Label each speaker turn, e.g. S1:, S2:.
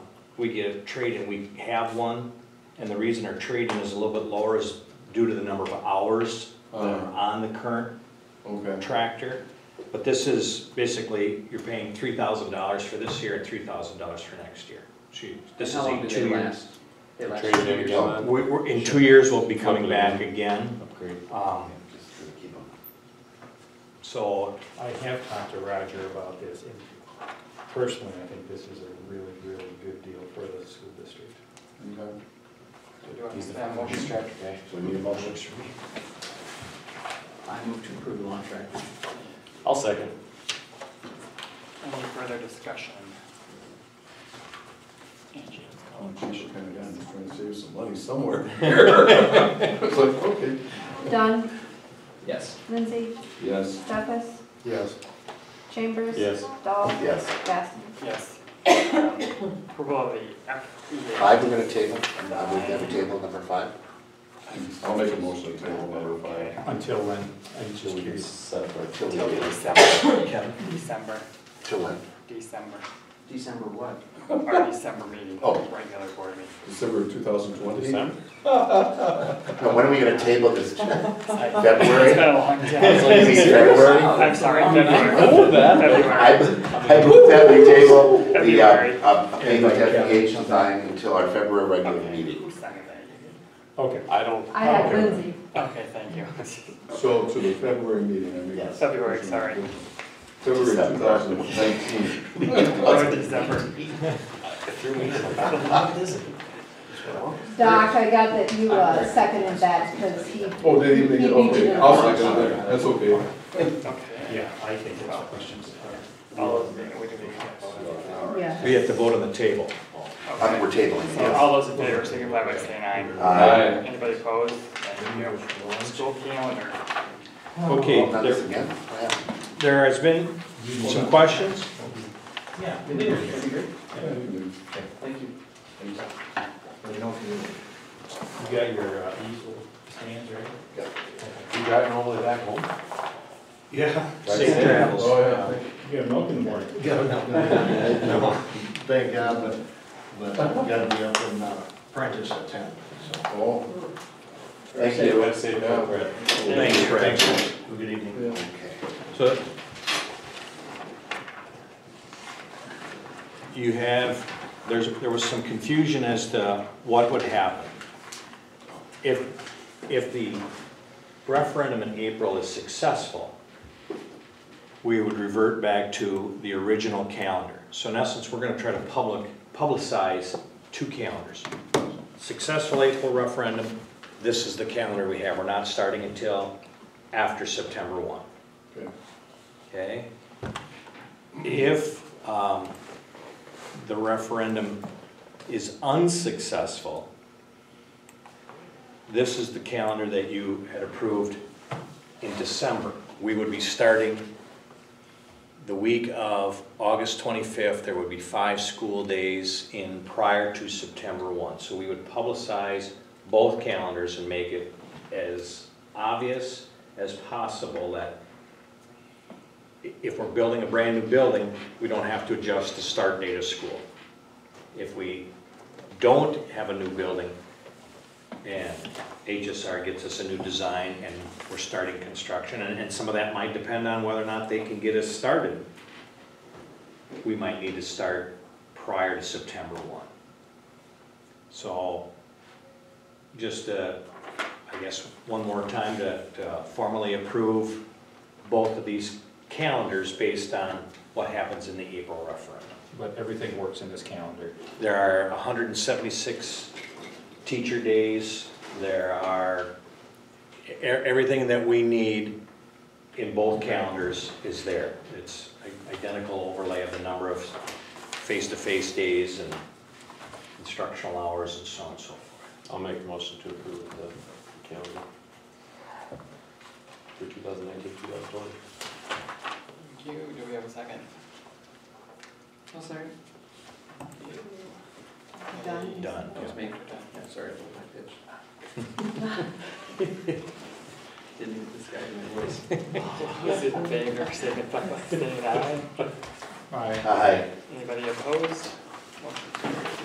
S1: we get a trade-in, we have one, and the reason our trade-in is a little bit lower is due to the number of hours that are on the current
S2: Okay,
S1: tractor. But this is basically, you're paying three thousand dollars for this year and three thousand dollars for next year. So you- This is
S3: How long
S1: a
S3: do they
S1: two-year.
S3: last? They last
S4: Trade it
S3: two
S4: in
S3: years.
S4: again.
S1: We, we're, in two years, we'll be coming back again.
S4: Upgrade.
S1: Um, so,
S5: I have talked to Roger about this, and personally, I think this is a really, really good deal for the school district.
S2: okay.
S3: Do I understand what you're trying to say?
S2: So we need a motion.
S3: I move to approve the launch tractor.
S4: I'll second.
S6: Any further discussion? Angie, let's call.
S2: Oh, geez, we're kinda done, just trying to save some money somewhere. It's like, okay.
S7: Dunn,
S3: Yes.
S7: Lindsay,
S2: Yes.
S7: Stefas,
S2: Yes.
S7: Chambers.
S4: Yes.
S7: Dahl.
S2: Yes.
S7: Bastian.
S6: Yes. Um, Approval of the FEA.
S8: Five, we're gonna table, I would have a table number five.
S2: I'll make a motion to table number five.
S5: Until when, I'm just
S4: Till we get
S5: curious.
S4: set up our-
S8: Till we
S6: Till
S8: get-
S6: December,
S1: Kevin,
S6: December,
S8: Till when?
S6: December,
S3: December what?
S6: our December meeting,
S8: Oh.
S6: regular board meeting.
S2: December two thousand twenty?
S4: December?
S8: No, when are we gonna table this?
S6: It's
S8: February?
S6: been a long time.
S8: February?
S6: I'm sorry, February.
S8: I,
S6: February.
S8: I move that we table the, uh,
S6: February.
S8: uh, payment FEH design until our February regular meeting.
S6: Who seconded that?
S5: Okay,
S4: I don't.
S7: I had Lindsay.
S6: Okay, thank you.
S2: So to the February meeting, I mean.
S6: Yes. February, sorry.
S2: February two thousand nineteen.
S6: Or December.
S7: Doc, I got that you uh, seconded that because he.
S2: Oh, they didn't make
S7: he
S2: it,
S7: beat you to
S2: okay,
S7: the
S2: I'll
S7: punch.
S2: second that, that's okay.
S6: Okay.
S5: yeah, I think it's questions.
S6: All those, we can do it.
S7: Yeah.
S1: we have to vote on the table.
S8: Um, Uh, we're tabling,
S6: So
S8: yes.
S6: all those in favor, signify by saying aye.
S8: Uh,
S6: Anybody opposed? Thank you. School calendar.
S1: Okay,
S8: not
S1: there,
S8: this again. Wow.
S1: there has been some questions?
S3: Yeah, we did, that'd be great.
S2: Yeah, you can
S3: Thank you.
S5: You got your uh, easel stands, right?
S4: You driving all the way back home?
S1: Yeah. Safe
S4: Right.
S1: travels.
S2: Oh, yeah.
S5: You got milk in the morning.
S9: Thank God, but, but I've gotta be up in uh, Prentice at ten, so.
S2: do. Oh,
S8: Thank
S4: Yeah,
S8: you.
S4: let's say that, Brett.
S1: Thank you, Brad.
S9: Good evening.
S2: yeah.
S1: So you have, there's, there was some confusion as to what would happen. If, if the referendum in April is successful, we would revert back to the original calendar. So in essence, we're gonna try to public, publicize two calendars. Successful April referendum, this is the calendar we have. We're not starting until after September one
S2: Okay.
S1: okay? If um, the referendum is unsuccessful, this is the calendar that you had approved in December. We would be starting the week of August 25th. There would be five school days in prior to September 1. So we would publicize both calendars and make it as obvious as possible that if we're building a brand-new building, we don't have to adjust the start date of school. If we don't have a new building, and HSR gets us a new design, and we're starting construction, and, and some of that might depend on whether or not they can get us started. We might need to start prior to September one. So, just, uh, I guess, one more time to, to formally approve both of these calendars based on what happens in the April referendum.
S5: But everything works in this calendar.
S1: There are 176 teacher days, there are, e- everything that we need in both calendars is there. It's identical overlay of the number of face-to-face days and instructional hours and so on and so forth.
S4: I'll make a motion to approve the calendar for 2019, 2020.
S6: Thank you. Do we have a second? No, Oh, sorry.
S7: Dunn.
S1: Done.
S3: That was me. Yeah, sorry, I pulled my pitch. Didn't mean to disguise my voice.
S6: Those in favor, signify by saying aye.
S5: All right.
S8: Aye.
S6: Anybody opposed? Motion carries.